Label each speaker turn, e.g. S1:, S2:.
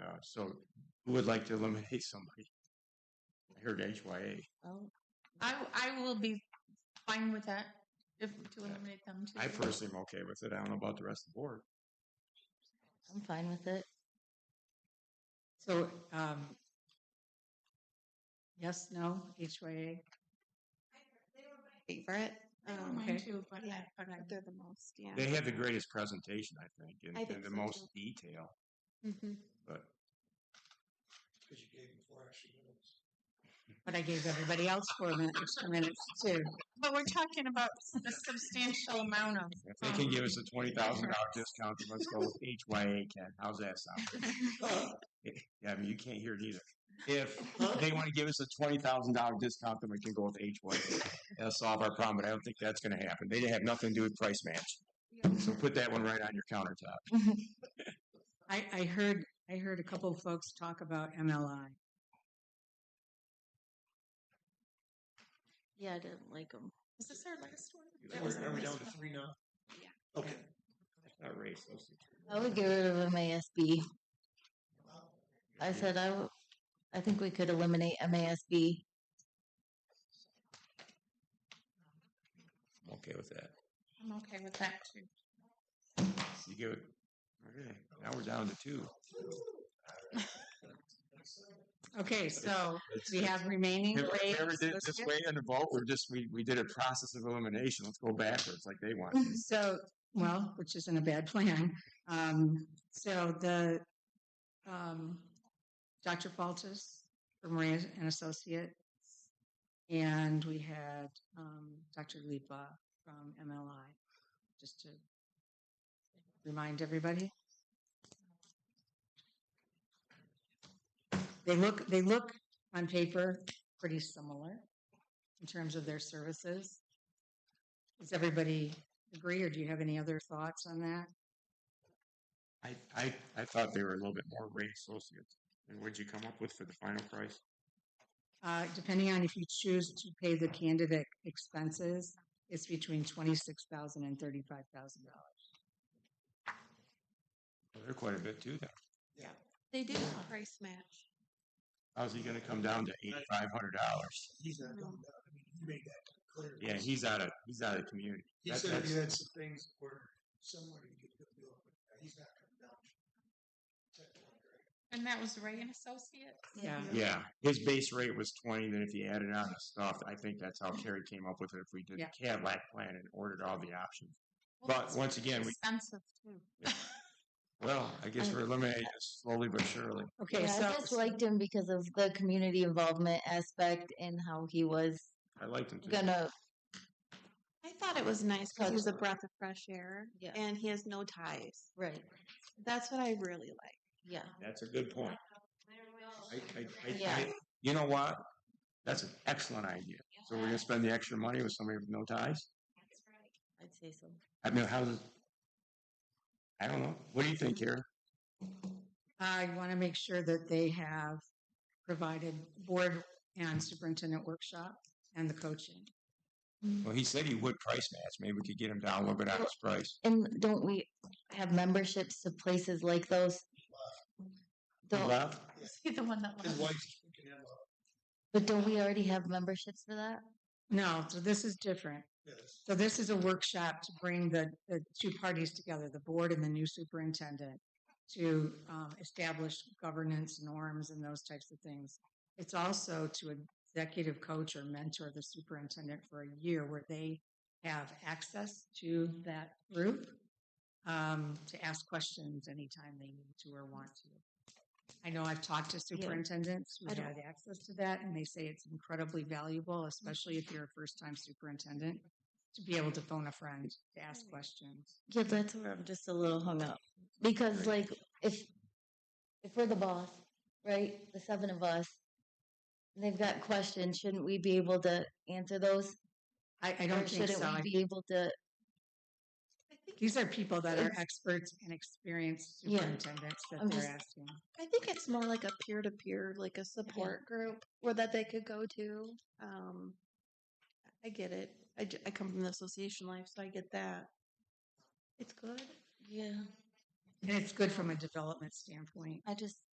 S1: jobs. Uh, So who would like to eliminate somebody? I heard HYA.
S2: Oh,
S3: I, I will be fine with that if to eliminate them too.
S1: I personally am okay with it. I don't know about the rest of the board.
S2: I'm fine with it.
S4: So, um, yes, no, HYA?
S2: Favorite? Um,
S3: I
S4: Oh,
S3: don't mind
S4: okay.
S3: too, but I,
S5: Yeah,
S3: but I,
S5: They're the most, yeah.
S1: They had the greatest presentation, I think, and,
S5: I
S1: and
S5: think
S1: the
S5: so,
S1: most detail.
S2: Mm-hmm.
S5: Mhm.
S1: But
S6: Because you gave them four extra minutes.
S4: But I gave everybody else four minutes, two minutes too.
S3: but we're talking about a substantial amount of.
S1: if they
S5: Oh.
S1: can give us a twenty thousand dollar discount, then let's go with HYA. Ken, how's that sound? Yeah, I mean you can't hear it either. If they want to give us a twenty thousand dollar discount, then we can go with HYA. That'll solve our problem. But I don't think that's going to happen. They have nothing to do with price match. So put that one right on your countertop.
S4: I, I heard, I heard a couple of folks talk about MLI.
S2: Yeah, I didn't like them.
S3: Is this our last one? That was
S6: Are
S3: our
S6: are we down
S3: last
S6: to
S3: one.
S6: three now?
S5: Yeah.
S6: Okay.
S1: Not race.
S2: I would get rid of MASB. I said I, w- I think we could eliminate MASB.
S1: I'm okay with that.
S3: I'm okay with that too.
S1: You give it. Okay. Now we're down to two.
S4: Okay, so we have remaining
S1: If we
S4: waves
S1: ever did it this
S4: listed.
S1: way in the vote, we're just, we, we did a process of elimination. Let's go backwards like they want.
S4: So, well, which isn't a bad plan. Um, so the, um, Dr. Faltis from Ray and Associates, and we had, um, Dr. Lipa from MLI, just to remind everybody. They look, they look on paper pretty similar in terms of their services. Is everybody agree, or do you have any other thoughts on that?
S1: I, I, I thought they were a little bit more rate associates. And what'd you come up with for the final price?
S4: Uh, depending on if you choose to pay the candidate expenses, it's between twenty-six thousand and thirty-five thousand dollars.
S1: Well, They're quite a bit too then.
S5: They do a price match.
S1: How's he gonna come down to eighty-five hundred dollars?
S6: He's not
S5: No.
S6: going down. I mean, he made that clear.
S1: Yeah, he's out of, he's out of the community.
S6: He
S1: That-
S6: said if you
S1: that's-
S6: had some things where somewhere you could go do it, but he's not coming down. to 10, right?
S3: And that was Ray and Associates?
S4: Yeah.
S1: Yeah, his base rate was twenty, then if you added on the stuff, I think that's how Kerry came up with it. If we did the
S4: Yeah.
S1: Cadillac plan and ordered all the options.
S3: Well,
S1: But
S3: that's
S1: once again, we,
S3: Expensive too.
S1: well, I guess we're eliminating this slowly but surely.
S4: Okay,
S2: yeah, I just
S4: so
S2: liked him because of the community involvement aspect and how he was
S1: I liked him too.
S2: gonna.
S5: I thought it was nice because he was a breath of fresh air
S2: Yeah.
S5: and he has no ties.
S2: Right.
S5: That's what I really like.
S2: Yeah.
S1: That's a good point. I, I, I,
S2: Yeah.
S1: I, you know what? That's an excellent idea. So we're gonna spend the extra money with somebody with no ties?
S2: I'd say so.
S1: I mean, how's it? I don't know. What do you think, Kerry?
S4: uh, I want to make sure that they have provided board and superintendent workshop and the coaching.
S1: Well, he said he would price match. Maybe we could get him down a little bit on his price.
S2: And don't we have memberships to places like those?
S1: He
S2: Don't-
S1: left?
S3: See the one that
S6: His
S3: was.
S6: wife can have a,
S2: but don't we already have memberships for that?
S4: No, so this is different.
S6: yes.
S4: So this is a workshop to bring the, the two parties together, the board and the new superintendent, to um, establish governance norms and those types of things. It's also to executive coach or mentor the superintendent for a year where they have access to that group um, to ask questions anytime they need to or want to. I know I've talked to superintendents who
S5: I don't-
S4: had access to that, and they say it's incredibly valuable, especially if you're a first time superintendent, to be able to phone a friend to ask questions.
S2: Yeah, that's where I'm just a little hung up because, like, if if we're the boss, right, the seven of us, and they've got questions, shouldn't we be able to answer those?
S4: I, I don't
S2: or
S4: think
S2: shouldn't
S4: so. I
S2: we be able to?
S4: These are people that are
S2: It's-
S4: experts and experienced
S2: Yeah.
S4: superintendents that
S2: I'm
S4: they're
S2: just-
S4: asking.
S5: I think it's more like a peer to peer, like a support group or that they could go to. Um, I get it. I, j- I come from the association life, so I get that. It's good.
S2: Yeah,
S4: And it's good from a development standpoint.
S2: I just